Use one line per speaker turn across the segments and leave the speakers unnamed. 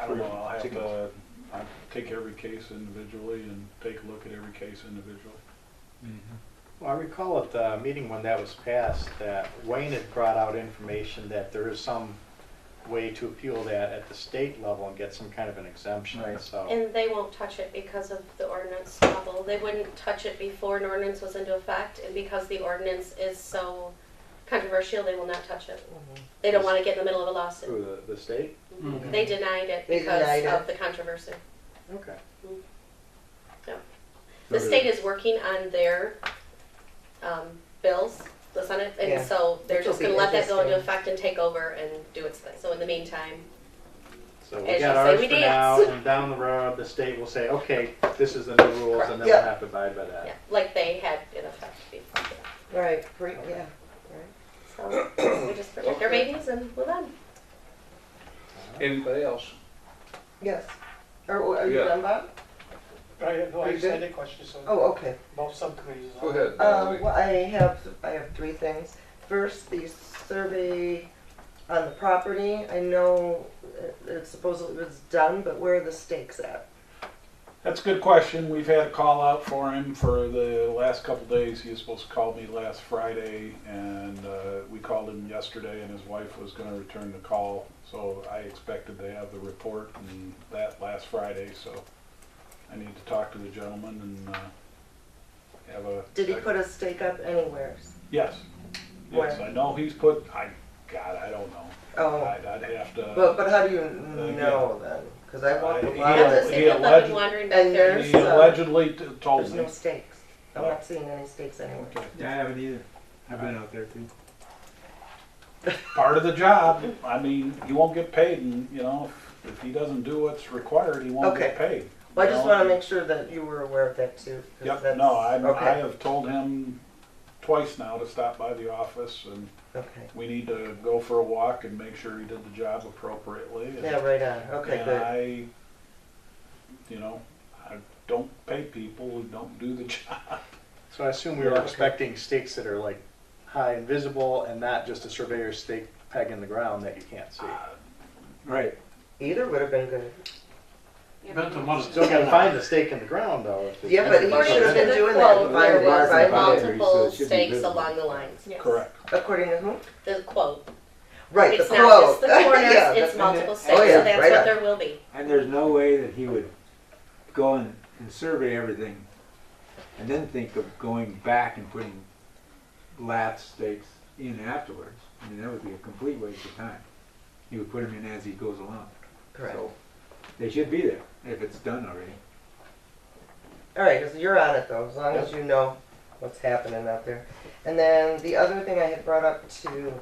I don't know, I'll have
Chickens.
to, I'll take every case individually and take a look at every case individually.
Well, I recall at the meeting when that was passed, that Wayne had brought out information that there is some way to appeal that at the state level and get some kind of an exemption,
Right.
so.
And they won't touch it because of the ordinance level. They wouldn't touch it before an ordinance was into effect, and because the ordinance is so controversial, they will not touch it.
Mm-hmm.
They don't want to get in the middle of a lawsuit.
Who, the, the state?
They denied it
They
because
denied
of
it.
the controversy.
Okay.
The state is working on their um, bills, the Senate, and
Yeah.
so they're
Which will
just going to
be
let that go into
interesting.
effect and take over and do its thing. So in the meantime,
So we
As
got
you say,
ours
we
for now,
dance.
and down the road, the state will say, okay, this is the new rules, and then we'll
Yeah.
have to abide by
yeah,
that.
like they had in effect before.
Right, great, yeah, right.
So we just protect our babies and move on.
Anybody else?
Yes. Are, are you
Yeah.
done, Bob?
I, no, I
Are you
just had
good?
a question, so
Oh, okay.
both subcommittees.
Go ahead.
Um,
Valerie.
well, I have, I have three things. First, the survey on the property. I know it- it's supposedly was done, but where are the stakes at?
That's a good question. We've had a call out for him for the last couple days. He was supposed to call me last Friday, and uh, we called him yesterday, and his wife was going to return the call. So I expected to have the report and that last Friday. So I need to talk to the gentleman and uh, have a.
Did he put a stake up anywhere?
Yes. Yes,
Where?
I know he's put. I God, I don't know.
Oh,
I'd, I'd have to.
but, but how do you know then? Because I walked a
Uh,
lot
he-
of
That's
Yeah, he
the same
it.
with them
alleged-
wandering back
And
there.
there's,
he
uh,
allegedly t- told
There's
me.
no stakes. I'm not seeing any stakes anywhere.
Okay.
Yeah, I haven't either. I've been out there too.
part of the job. I mean, he won't get paid, and you know, if, if he doesn't do what's required, he won't get paid.
Well, I just
You know?
want to make sure that you were aware of that too. 'cause
Yep.
that's-
No, I, I
Okay,
have told him twice now to stop by the office, and
okay.
we need to go for a walk and make sure he did the job appropriately. And,
Yeah, right on. Okay,
and
good.
I, you know, I don't pay people who don't do the job.
So I assume we were
Okay.
expecting stakes that are like high and visible, and not just a surveyor's stake peg in the ground that you can't see.
Right.
Either would have been good.
Still gotta find the stake in the ground, though. if it's-
Yeah, but he
According to
should've been
the
doing that
quote,
by-
there
by-
was
by-
multiple
So it should be
stakes
visible.
along the lines.
Correct.
According to whom?
The quote.
Right, the
It's not just
quote.
the corners,
Yeah,
it's
the-
multiple
Oh,
stakes, so
yeah,
that's
right
what
on.
there will be.
And there's no way that he would go and, and survey everything and then think of going back and putting lat stakes in afterwards. I mean, that would be a complete waste of time. He would put them in as he goes along.
Correct.
So they should be there if it's done already.
All right, so you're on it though, as long as you know what's happening out there. And then the other thing I had brought up to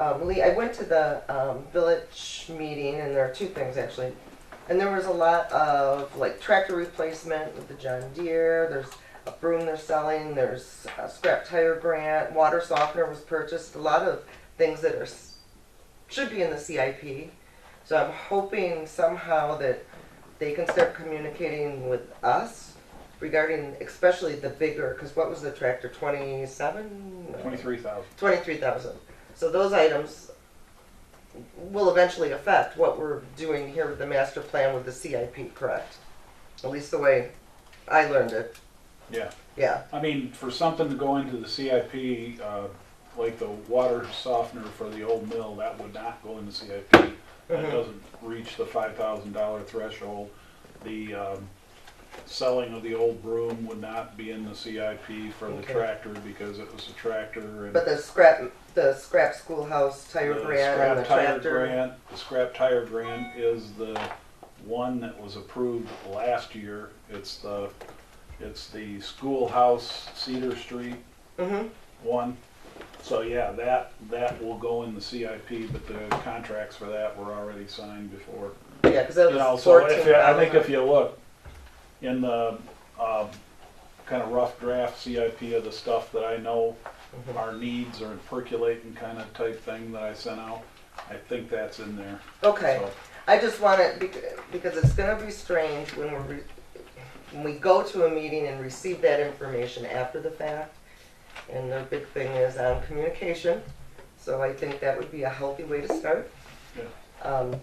um, Lee, I went to the um, village meeting, and there are two things actually. And there was a lot of like tractor replacement with the John Deere. There's a broom they're selling. There's a scrap tire grant. Water softener was purchased. A lot of things that are s- should be in the CIP. So I'm hoping somehow that they can start communicating with us regarding especially the bigger, because what was the tractor, 27?
Twenty-three thousand.
23,000. So those items will eventually affect what we're doing here with the master plan with the CIP, correct? At least the way I learned it,
Yeah.
yeah.
I mean, for something to go into the CIP, uh, like the water softener for the old mill, that would not go into CIP. That doesn't reach the five thousand dollar threshold. The, um, selling of the old broom would not be in the CIP for the
Okay.
tractor because it was a tractor and.
But the scrap, the scrap schoolhouse
the
tire grant
scrap
and the
tire
tractor.
grant- The scrap tire grant is the one that was approved last year. It's the, it's the schoolhouse Cedar Street
Mhm.
one. So yeah, that, that will go in the CIP, but the contracts for that were already signed before.
Yeah, because that
You know,
was
so if, you- I
14,000.
think if you look in the, um, kind of rough draft CIP of the stuff that I know our needs are percolating kind of type thing that I sent out, I think that's in there.
Okay.
So,
I just want it bec- because it's going to be strange when we re- when we go to a meeting and receive that information after the fact. And the big thing is um, on communication, so I think that would be a healthy way to start.
Yeah.
Um,